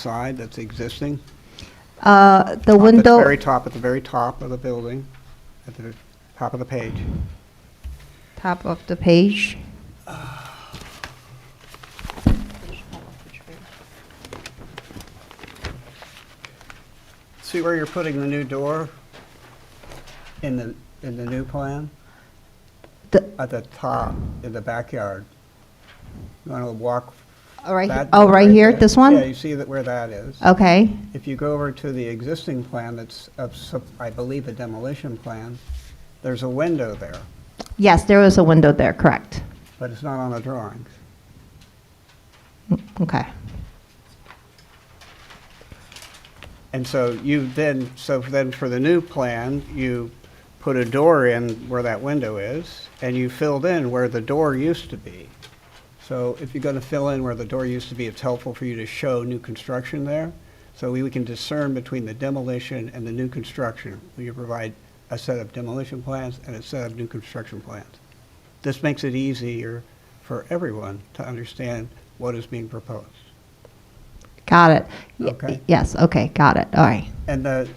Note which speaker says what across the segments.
Speaker 1: side that's existing?
Speaker 2: Uh, The
Speaker 1: Top at
Speaker 2: window.
Speaker 1: Very top, at the very top of the building, at the top of the page.
Speaker 2: top of the page.
Speaker 1: See where you're putting the new door in the, in the new plan?
Speaker 2: The,
Speaker 1: At the top, in the backyard. You want to walk
Speaker 2: all right,
Speaker 1: that
Speaker 2: oh,
Speaker 1: door
Speaker 2: right here,
Speaker 1: there?
Speaker 2: this one? Oh.
Speaker 1: Yeah, you see that where that is?
Speaker 2: Okay,
Speaker 1: If you go over to the existing plan that's, of sup- I believe, a demolition plan, there's a window there,
Speaker 2: yes, there was a window there, correct.
Speaker 1: but it's not on the drawings.
Speaker 2: Mm, Okay,
Speaker 1: And so you then, so then for the new plan, you put a door in where that window is, and you filled in where the door used to be. So if you're gonna fill in where the door used to be, it's helpful for you to show new construction there. So we we can discern between the demolition and the new construction. We provide a set of demolition plans and a set of new construction plans. This makes it easier for everyone to understand what is being proposed.
Speaker 2: got it. Y-
Speaker 1: Okay.
Speaker 2: Yes, okay, got it, all right.
Speaker 1: And the,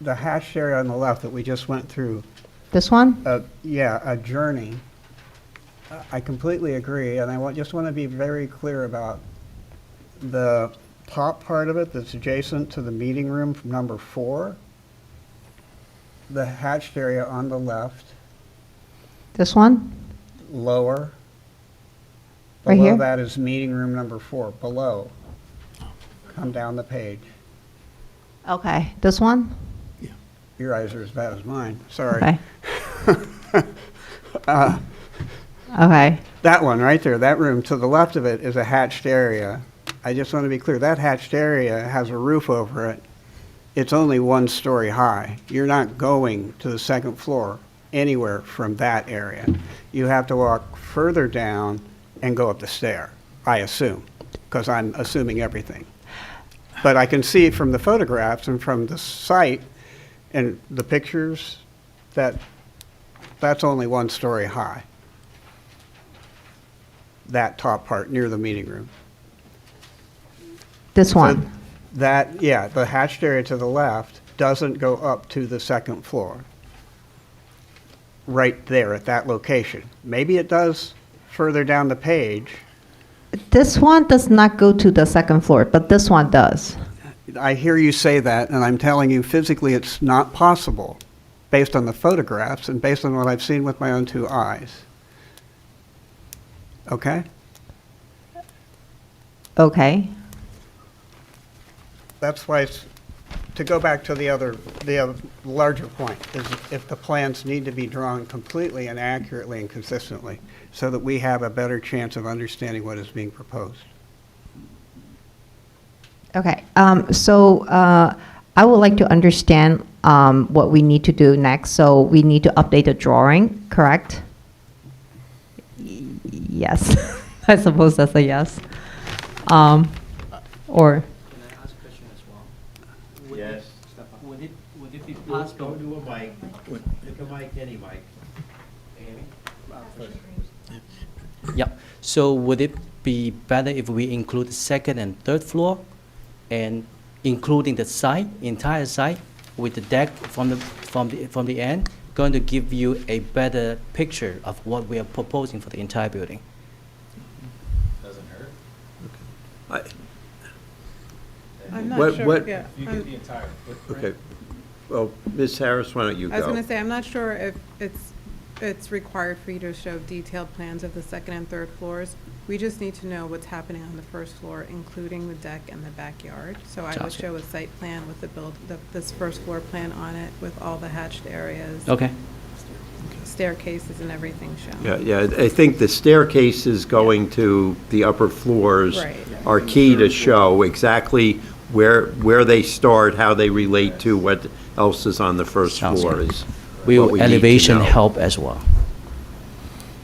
Speaker 1: the hash area on the left that we just went through,
Speaker 2: This one?
Speaker 1: uh, yeah, a journey. I- I completely agree, and I want, just want to be very clear about the top part of it that's adjacent to the meeting room from number four, the hatched area on the left,
Speaker 2: This one?
Speaker 1: lower.
Speaker 2: Right
Speaker 1: Below
Speaker 2: here?
Speaker 1: that is meeting room number four, below. Come down the page.
Speaker 2: Okay, this one?
Speaker 1: Your eyes are as bad as mine, sorry.
Speaker 2: Okay. Okay,
Speaker 1: That one right there, that room to the left of it is a hatched area. I just want to be clear, that hatched area has a roof over it. It's only one story high. You're not going to the second floor anywhere from that area. You have to walk further down and go up the stair, I assume, because I'm assuming everything. But I can see from the photographs and from the site and the pictures that that's only one story high that top part near the meeting room.
Speaker 2: this
Speaker 1: So
Speaker 2: one?
Speaker 1: That, yeah, the hatched area to the left doesn't go up to the second floor. Right there at that location. Maybe it does further down the page.
Speaker 2: This one does not go to the second floor, but this one does.
Speaker 1: I hear you say that, and I'm telling you physically it's not possible, based on the photographs and based on what I've seen with my own two eyes. Okay?
Speaker 2: Okay,
Speaker 1: That's why, it's- to go back to the other, the other larger point, is if the plans need to be drawn completely and accurately and consistently, so that we have a better chance of understanding what is being proposed.
Speaker 2: Okay, um, so uh, I would like to understand um, what we need to do next. So we need to update the drawing, correct? Y- Yes, I suppose that's a yes. Um, Or,
Speaker 3: Can I ask a question as well? Would
Speaker 4: Yes.
Speaker 3: it- Would it, would it be
Speaker 4: Don't
Speaker 3: possible?
Speaker 4: do a mic. Pick a mic, any mic. Amy?
Speaker 3: Yeah, so would it be better if we include second and third floor? And including the side, entire side with the deck from the, from the, from the end? Going to give you a better picture of what we are proposing for the entire building.
Speaker 4: Doesn't hurt.
Speaker 5: I-
Speaker 6: I'm
Speaker 5: What-
Speaker 6: not sure,
Speaker 5: what-
Speaker 6: yeah. I'm-
Speaker 4: entire footprint.
Speaker 5: Okay. Well, Ms. Harris, why don't you go?
Speaker 6: I was gonna say, I'm not sure if it's, it's required for you to show detailed plans of the second and third floors. We just need to know what's happening on the first floor, including the deck and the backyard. So I would
Speaker 3: Gotcha.
Speaker 6: show a site plan with the build, the- this first floor plan on it with all the hatched areas,
Speaker 3: Okay,
Speaker 6: staircases and everything shown.
Speaker 5: Yeah, yeah, I think the staircases going to the upper floors
Speaker 6: Right.
Speaker 5: are key to show exactly where, where they start, how they relate to what else is on the first
Speaker 3: Sounds
Speaker 5: floor
Speaker 3: good.
Speaker 5: is. what we
Speaker 3: will
Speaker 5: need to
Speaker 3: elevation
Speaker 5: know.
Speaker 3: help as well?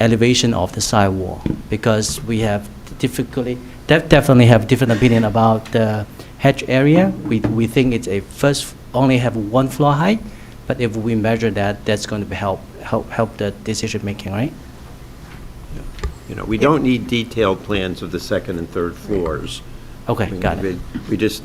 Speaker 3: Elevation of the side wall, because we have difficulty, def- definitely have different opinion about the hedge area. We, we think it's a first, only have one floor height, but if we measure that, that's going to be help, help, help the decision-making, right?
Speaker 5: You know, we don't need detailed plans of the second and third floors.
Speaker 3: Okay,
Speaker 5: We-
Speaker 3: got it.
Speaker 5: we- We just